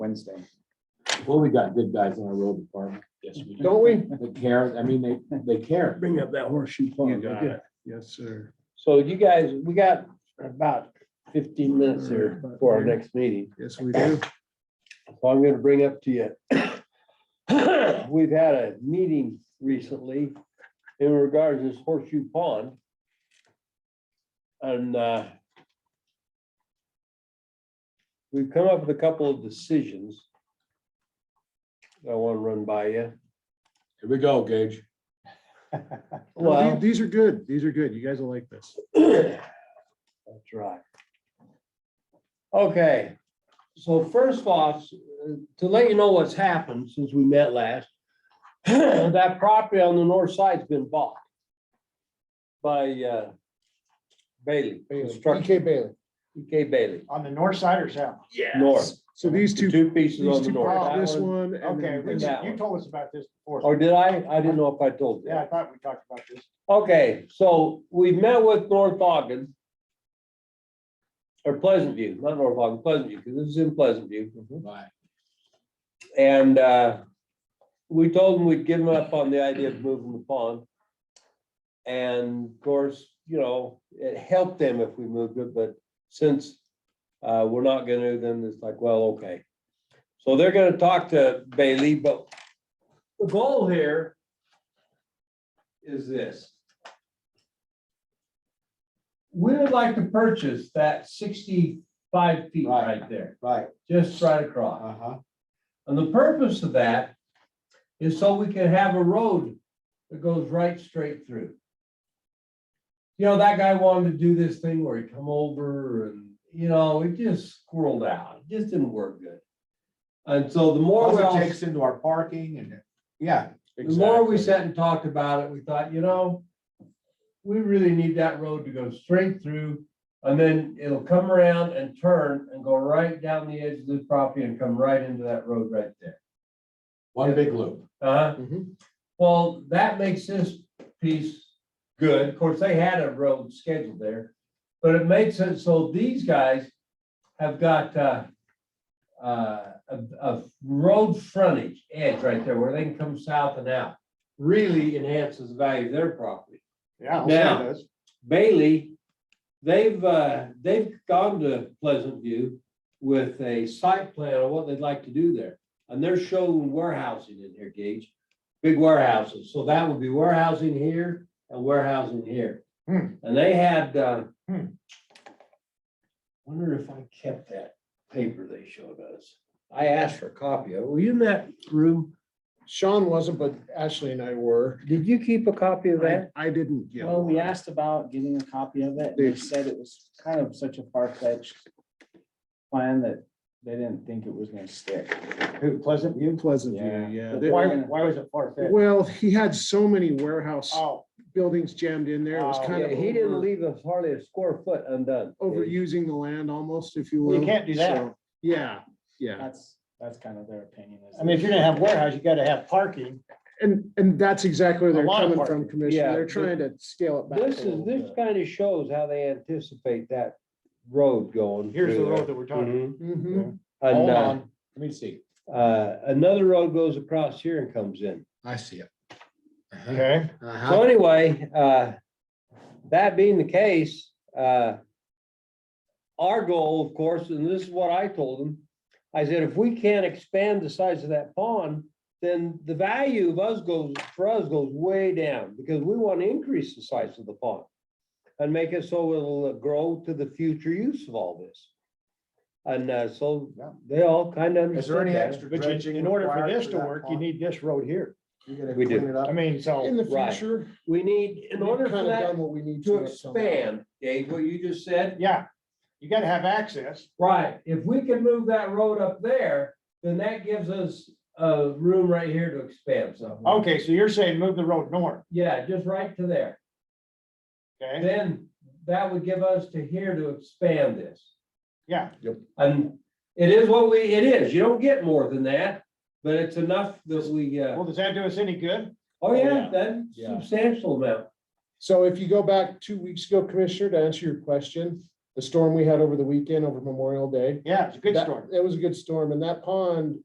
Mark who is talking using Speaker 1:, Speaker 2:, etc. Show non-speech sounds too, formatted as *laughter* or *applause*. Speaker 1: Wednesday.
Speaker 2: Well, we got good guys in our road department.
Speaker 3: Yes, we do.
Speaker 1: Don't we?
Speaker 2: They care, I mean, they, they care.
Speaker 4: Bring up that horseshoe pond.
Speaker 3: got
Speaker 4: yeah. Yes, sir.
Speaker 5: So you guys, we got about fifteen minutes here for our next meeting. *laughs*
Speaker 4: Yes, we do.
Speaker 5: So I'm gonna bring up to you. *coughs* We've had a meeting recently in regards to this horseshoe pond. And uh, we've come up with a couple of decisions. that I want to run by you.
Speaker 2: Here we go, Gage.
Speaker 4: No, the-
Speaker 5: Well.
Speaker 4: These are good. These are good. You guys will like this.
Speaker 5: That's right. Okay, so first off, to let you know what's happened since we met last. *clears throat* That property on the north side's been bought. By uh, Bailey, Construction,
Speaker 1: P.K. Bailey.
Speaker 5: EK Bailey,
Speaker 1: On the north side or south?
Speaker 5: north,
Speaker 4: So these
Speaker 5: the
Speaker 4: two,
Speaker 5: two pieces on
Speaker 4: these
Speaker 5: the
Speaker 4: two,
Speaker 5: north.
Speaker 1: parts,
Speaker 5: That
Speaker 4: this
Speaker 5: one-
Speaker 4: one. and
Speaker 1: Okay,
Speaker 4: then
Speaker 1: we-
Speaker 4: this-
Speaker 5: that
Speaker 1: you
Speaker 5: one.
Speaker 1: told us about this
Speaker 5: Or
Speaker 1: before.
Speaker 5: did I? I didn't know if I told you.
Speaker 1: Yeah, I thought we talked about this.
Speaker 5: Okay, so we met with North Ogden. Or Pleasant View, not North Ogden, Pleasant View, because this is in Pleasant View.
Speaker 2: Bye.
Speaker 5: And uh, we told them we'd give them up on the idea of moving the pond. And of course, you know, it helped them if we moved it, but since uh, we're not gonna, then it's like, well, okay. So they're gonna talk to Bailey, but the goal here is this. We would like to purchase that sixty-five feet
Speaker 2: Right.
Speaker 5: right there,
Speaker 2: Right,
Speaker 5: just right across.
Speaker 2: uh-huh.
Speaker 5: And the purpose of that is so we can have a road that goes right straight through. You know, that guy wanted to do this thing where he come over and, you know, it just squirreled out. It just didn't work good. And so the more we
Speaker 2: Also
Speaker 5: all,
Speaker 2: takes into our parking and, yeah,
Speaker 5: the more we
Speaker 2: Exactly.
Speaker 5: sat and talked about it, we thought, you know, we really need that road to go straight through and then it'll come around and turn and go right down the edge of this property and come right into that road right there.
Speaker 2: one big loop.
Speaker 5: Uh,
Speaker 2: Mhm.
Speaker 5: well, that makes this piece good. Of course, they had a road scheduled there. But it makes it so these guys have got, uh, uh, a, a road frontage edge right there where they can come south and out. Really enhances the value of their property.
Speaker 1: Yeah. I'll
Speaker 5: Now-
Speaker 1: say this.
Speaker 5: Bailey, they've, uh, they've gone to Pleasant View with a site plan on what they'd like to do there. And they're showing warehousing in here, Gage, big warehouses. So that would be warehousing here and warehousing here.
Speaker 1: Hmm.
Speaker 5: And they had, uh,
Speaker 1: Hmm.
Speaker 5: wonder if I kept that paper they showed us. I asked for a copy of it. Were you in that room?
Speaker 4: Sean wasn't, but Ashley and I were.
Speaker 5: Did you keep a copy of
Speaker 4: I I didn't get.
Speaker 1: Well, we
Speaker 4: one.
Speaker 1: asked about getting a copy of it, and they said it was kind of such a far-fetched plan that they didn't think it was gonna stick. Who, Pleasant View?
Speaker 4: Pleasant View, yeah. They-
Speaker 1: Why, why was it far-fetched?
Speaker 4: Well, he had so many warehouse
Speaker 1: Oh,
Speaker 4: buildings jammed in there. It was
Speaker 1: Oh,
Speaker 4: kind
Speaker 5: Yeah,
Speaker 4: of
Speaker 5: he didn't
Speaker 4: over-
Speaker 5: leave us hardly a square foot undone. Gage.
Speaker 4: overusing the land almost, if you
Speaker 1: Well, you
Speaker 4: will.
Speaker 1: can't do that.
Speaker 4: So, Yeah, yeah.
Speaker 1: that's, that's kind of their opinion. I mean, if you're gonna have warehouse, you gotta have parking.
Speaker 4: And, and that's exactly where
Speaker 1: A
Speaker 4: they're
Speaker 1: lot of
Speaker 4: coming
Speaker 1: parking.
Speaker 4: from, Commissioner.
Speaker 5: Yeah,
Speaker 4: They're
Speaker 5: but
Speaker 4: trying to scale it back. a
Speaker 5: This is,
Speaker 4: little
Speaker 5: this
Speaker 4: bit.
Speaker 5: kind of shows how they anticipate that road going.
Speaker 1: Here's the
Speaker 5: through
Speaker 1: road
Speaker 5: there.
Speaker 1: that we're talking.
Speaker 5: Mhm.
Speaker 4: Mhm.
Speaker 5: And,
Speaker 2: Hold
Speaker 5: uh,
Speaker 2: on, let me see.
Speaker 5: uh, another road goes across here and comes in.
Speaker 2: I see it. Uh-huh.
Speaker 1: Okay.
Speaker 2: Uh-huh.
Speaker 5: So anyway, uh, that being the case, uh, our goal, of course, and this is what I told them, I said, if we can't expand the size of that pond, then the value of us goes, for us goes way down because we want to increase the size of the pond and make it so it'll uh, grow to the future use of all this. And, uh, so
Speaker 2: Yeah.
Speaker 5: they all kind of.
Speaker 2: Is there any extra
Speaker 1: But you-
Speaker 2: dredging
Speaker 1: in order for
Speaker 2: required
Speaker 1: this to
Speaker 2: that
Speaker 1: work, you
Speaker 2: pond?
Speaker 1: need this road here.
Speaker 2: You're gonna
Speaker 5: We do.
Speaker 2: clean it
Speaker 1: I
Speaker 2: up?
Speaker 1: mean,
Speaker 4: In
Speaker 1: so,
Speaker 4: the
Speaker 5: Oh, Right.
Speaker 4: future.
Speaker 5: We need, in
Speaker 4: we've
Speaker 5: order for
Speaker 4: kinda
Speaker 5: that
Speaker 4: done What we need
Speaker 5: to
Speaker 4: to. at some point.
Speaker 5: expand, Dave, what you just said,
Speaker 1: yeah, you gotta have access.
Speaker 5: Right, if we can move that road up there, then that gives us uh room right here to expand some.
Speaker 1: Okay, so you're saying move the road north,
Speaker 5: Yeah, just right to there.
Speaker 1: okay?
Speaker 5: Then that would give us to here to expand this.
Speaker 1: Yeah,
Speaker 5: And it is what we, it is. You don't get more than that, but it's enough that we, uh,
Speaker 1: well, does that do us any good?
Speaker 5: oh yeah, that
Speaker 2: Yeah.
Speaker 5: substantial amount.
Speaker 4: So if you go back two weeks ago, Commissioner, to answer your question, the storm we had over the weekend, over Memorial Day.
Speaker 2: Yeah, it's a good
Speaker 4: that-
Speaker 2: story.
Speaker 4: It was a good storm and that pond